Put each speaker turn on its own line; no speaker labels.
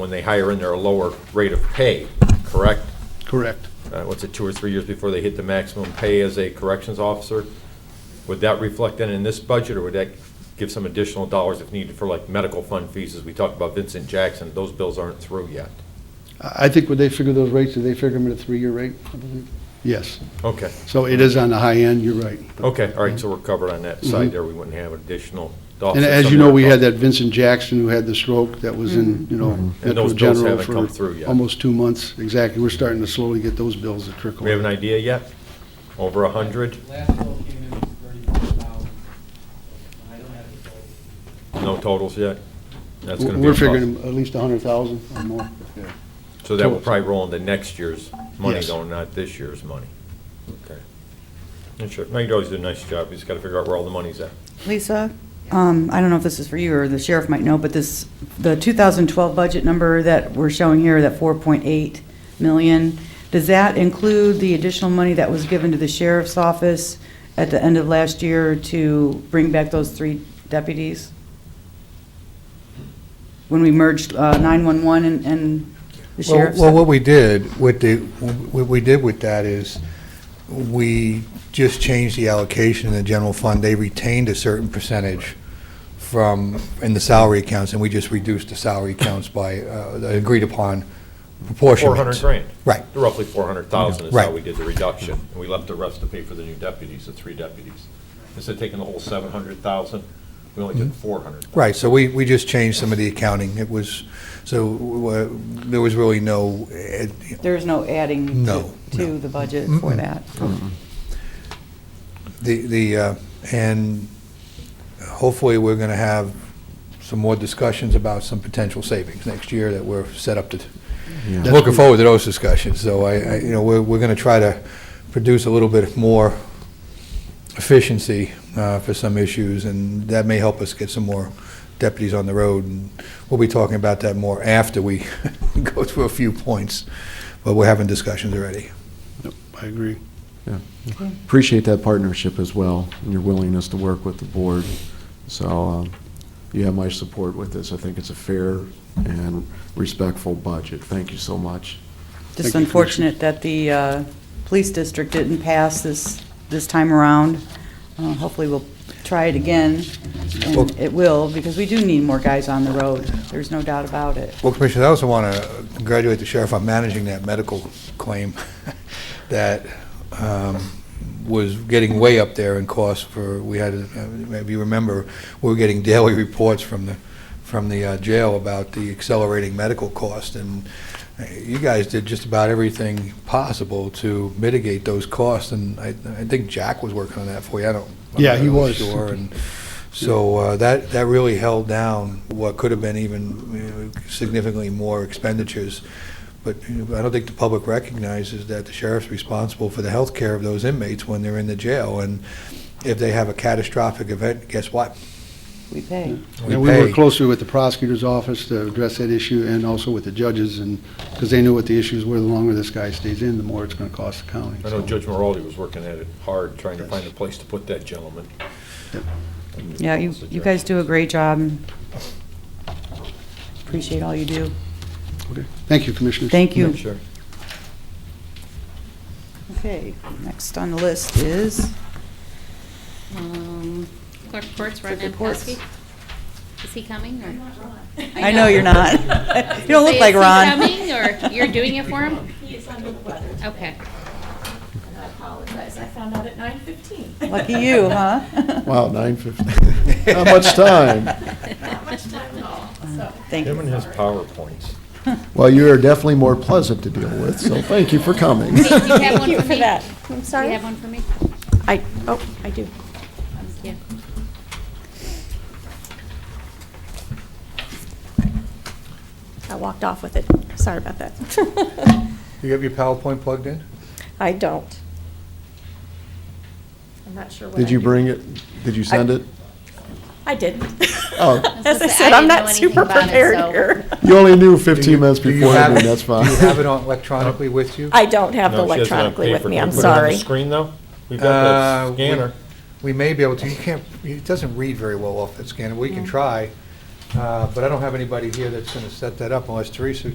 when they hire in their lower rate of pay, correct?
Correct.
Uh, What's it, two or three years before they hit the maximum pay as a corrections officer? Would that reflect then in this budget, or would that give some additional dollars if needed for like medical fund fees? As we talked about Vincent Jackson, those bills aren't through yet.
I I think when they figure those rates, did they figure them at a three-year rate? I believe? Yes.
Okay,
So it is on the high end, you're right.
okay, all right, so we're covered on that side
Mhm.
there. We wouldn't have additional
And
dollars.
as you know, we had that Vincent Jackson who had the stroke that was in, you know, Metro
Mm-hmm. those bills
General
haven't come through
for
yet.
almost two months. Exactly. We're starting to slowly get those bills to trickle.
We have an idea yet? Over a 100?
Last bill came in thirty-four thousand. I don't have the total.
No totals yet? That's gonna be
We're
a problem.
figuring at least a hundred thousand or more.
So that will
Totals.
probably roll into next year's money
Yes.
though, not this year's money. Okay. And sure, Mike always did a nice job, he's gotta figure out where all the money's at.
Lisa, um, I don't know if this is for you or the sheriff might know, but this, the 2012 budget number that we're showing here, that 4.8 million, does that include the additional money that was given to the sheriff's office at the end of last year to bring back those three deputies? When we merged uh, 911 and- and the
Well-
sheriff's?
Well, what we did, with the, what we did with that is, we just changed the allocation in the general fund. They retained a certain percentage from, in the salary accounts, and we just reduced the salary accounts by uh, the agreed-upon proportion.
Four hundred grand.
Right.
Roughly four hundred thousand is how
Right.
we did the reduction, and we left the rest to pay for the new deputies, the three deputies. Instead of taking the whole seven hundred thousand, we only did four hundred.
Right, so we, we just changed some of the accounting. It was, so uh, there was really no, eh,
There's no adding to-
No,
to the budget for
Mm-mm.
that?
The, the, uh, and hopefully, we're going to have some more discussions about some potential savings next year that we're set up to,
That's
looking
good.
forward to those discussions. So I, I- you know, we're, we're going to try to produce a little bit more efficiency uh, for some issues, and that may help us get some more deputies on the road. And We'll be talking about that more after we go through a few points, but we're having discussions already.
Yep, I agree.
appreciate that partnership as well and your willingness to work with the board. So um, you have my support with this. I think it's a fair and respectful budget. Thank you so
Just
much.
Thank you, Commissioner.
unfortunate that the uh, police district didn't pass this, this time around. Uh, Hopefully, we'll try it again,
Well-
and it will, because we do need more guys on the road. There's no doubt about it.
Well, Commissioner, I also want to congratulate the sheriff on managing that medical claim that um, was getting way up there in cost for, we had, uh, maybe you remember, we were getting daily reports from the, from the uh, jail about the accelerating medical cost, and uh, you guys did just about everything possible to mitigate those costs, and I, I think Jack was working on that for you, I don't. I'm
Yeah,
not
he
really
was.
Sure, and so uh, that, that really held down what could have been even you know, significantly more expenditures. But you know, I don't think the public recognizes that the sheriff's responsible for the health care of those inmates when they're in the jail. And if they have a catastrophic event, guess what?
We pay.
We
And we work
pay.
closely with the prosecutor's office to address that issue and also with the judges and, because they knew what the issues were. The longer this guy stays in, the more it's going to cost the county.
I know
so.
Judge Maraldi was working at it hard, trying to
Yes.
find a place to put that gentleman.
Yeah, you, you guys do a great job. Appreciate all you do.
Okay. Thank you, Commissioners.
Thank you.
Sure.
Okay, next on the list is, um,
Clerk reports, Ron
Clerk reports.
Nankowski. Is he coming, or?
I know you're not. You don't look
Is
like
he
Ron.
coming, or you're doing it for him?
He is under the weather,
Okay.
and I apologize. I found out at nine fifteen.
Lucky you, huh?
Wow, 9:50. Not much time.
Not much time at all, so.
Thank
Him and
you.
his PowerPoints.
Well, you are definitely more pleasant to deal with, so thank you for coming.
Do you have one for me?
I'm
Do you have one for me?
I, oh, I do.
Yeah.
I walked off with it. Sorry about that.
You have your PowerPoint plugged in?
I don't. I'm not sure what I
Did you
do.
bring it? Did you send it?
I did.
Oh.
I was
As I
gonna say,
said,
I
I'm
didn't know
not
anything
super
about it,
prepared
so-
here.
You only knew
Do you-
15 minutes
do you
before,
have
I mean,
it-
that's fine.
Do you have it on electronically with you?
I don't have it
No, she has it on
electronically with
paper.
me,
Can
I'm
we put it on the
sorry.
Screen though? We've got
Uh,
the
we-
scanner.
We may be able to, you can't, it doesn't read very well off that scanner, we can try. Uh, But I don't have anybody here that's going to set that up unless Teresa